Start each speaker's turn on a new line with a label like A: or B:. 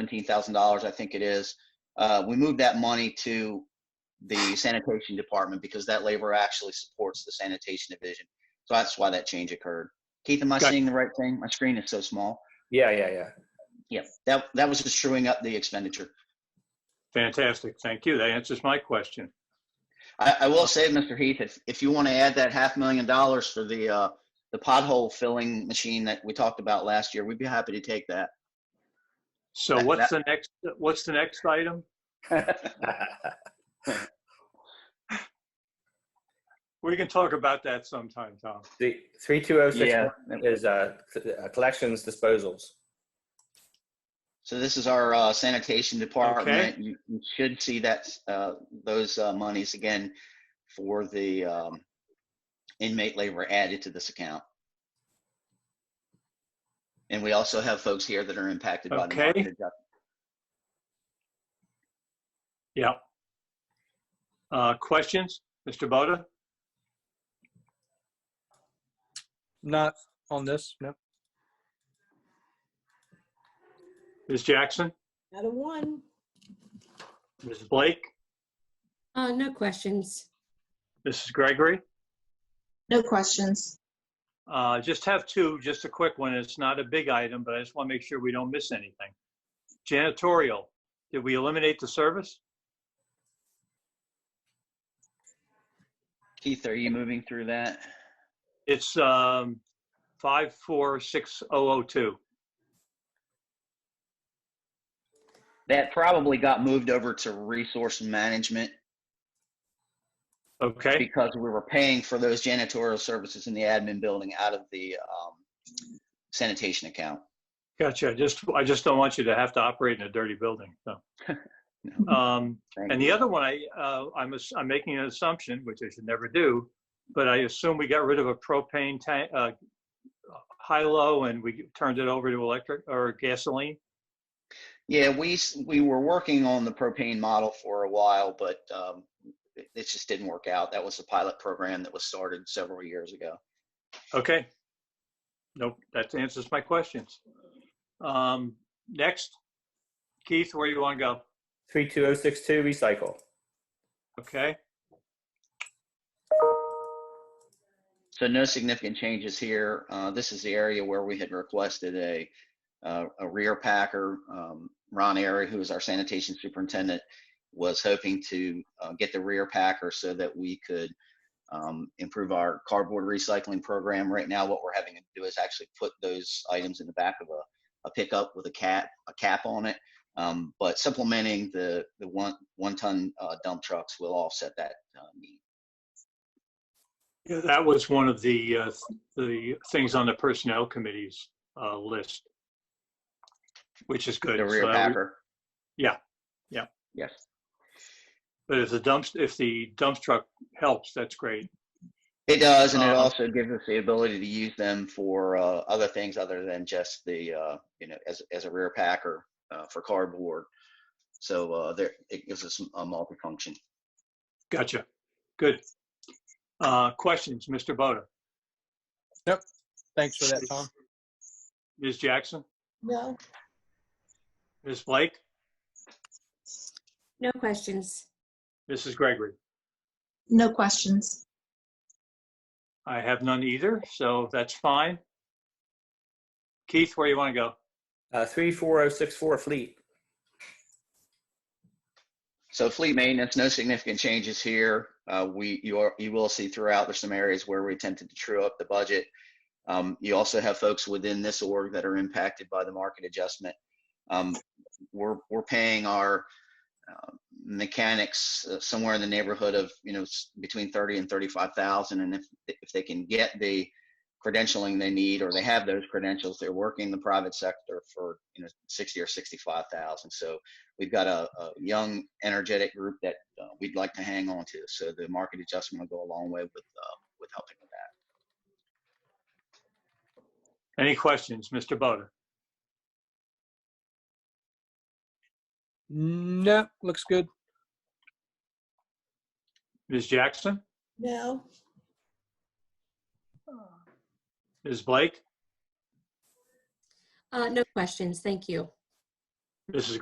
A: seventeen thousand dollars, I think it is. Uh, we moved that money to the sanitation department because that labor actually supports the sanitation division. So that's why that change occurred. Keith, am I
B: Gotcha.
A: seeing the right thing? My screen is so small.
C: Yeah, yeah, yeah.
A: Yeah, that, that was just truing up the expenditure.
B: Fantastic. Thank you. That answers my question.
A: I, I will say, Mr. Heath, if, if you want to add that half million dollars for the, uh, the pothole filling machine that we talked about last year, we'd be happy to take that.
B: So
A: That-
B: what's the next, what's the next item? We can talk about that sometime, Tom.
D: The three two oh six
C: Yeah.
D: is uh, c- uh, collections disposals.
A: So this is our uh, sanitation department. You you should see that, uh, those uh, monies again for the um, inmate labor added to this account. And we also have folks here that are impacted by the
B: Okay.
A: market adjustment.
B: Yeah. Uh, questions, Mr. Boda?
E: Not on this, no.
B: Ms. Jackson?
F: Out of one.
B: Ms. Blake?
G: Uh, no questions.
B: Mrs. Gregory?
H: No questions.
B: Uh, just have two, just a quick one. It's not a big item, but I just want to make sure we don't miss anything. Janitorial, did we eliminate the service?
A: Keith, are you moving through that?
B: It's um, five four six oh oh two.
A: That probably got moved over to resource management
B: Okay,
A: because we were paying for those janitorial services in the admin building out of the um, sanitation account.
B: gotcha. I Just I just don't want you to have to operate in a dirty building. So,
A: No.
B: um,
A: Thank
B: and the other one, I uh, I'm ass- I'm making an assumption, which I should never do, but I assume we got rid of a propane tank, uh, high low, and we turned it over to electric or gasoline.
A: Yeah, we s- we were working on the propane model for a while, but um, it, it just didn't work out. That was a pilot program that was started several years ago.
B: Okay. Nope, that answers my questions. Um, next, Keith, where you want to go?
D: Three two oh six two recycle.
B: Okay.
A: So no significant changes here. Uh, this is the area where we had requested a uh, a rear packer. Um, Ron Airy, who is our sanitation superintendent, was hoping to uh, get the rear packer so that we could um, improve our cardboard recycling program. Right now, what we're having to do is actually put those items in the back of a, a pickup with a cap a cap on it. Um, but supplementing the the one one ton uh, dump trucks will offset that uh, need.
B: Yeah, that was one of the, uh, the things on the personnel committee's, uh, list. Which is good.
A: The rear
B: So uh, that we-
A: packer.
B: Yeah, yeah.
A: Yes.
B: But if the dumps, if the dump truck helps, that's great.
A: It does, and it
B: Um,
A: also gives us the ability to use them for uh, other things other than just the uh, you know as as a rear packer uh, for cardboard. So uh, there, it gives us a multi-function.
B: Gotcha. Good. Uh, questions, Mr. Boda,
E: Thanks for that, Tom.
B: Ms. Jackson,
F: No.
B: Ms. Blake,
G: No questions.
B: Mrs. Gregory?
H: No questions.
B: I have none either, so that's fine. Keith, where you want to go?
D: Uh, three four oh six four fleet.
A: So fleet maintenance, no significant changes here. Uh, we you are you will see throughout there's some areas where we attempted to true up the budget. Um, you also have folks within this org that are impacted by the market adjustment. Um, we're we're paying our uh, mechanics uh, somewhere in the neighborhood of you know s- between thirty and thirty five thousand, and if if they can get the credentialing they need or they have those credentials, they're working the private sector for you know sixty or sixty five thousand. So we've got a, a young, energetic group that uh, we'd like to hang on to. So the market adjustment will go a long way with uh, with helping with that.
B: Any questions, Mr. Boda?
E: No, looks good.
B: Ms. Jackson?
F: No.
B: Ms. Blake?
G: Uh, no questions. Thank you.
B: This is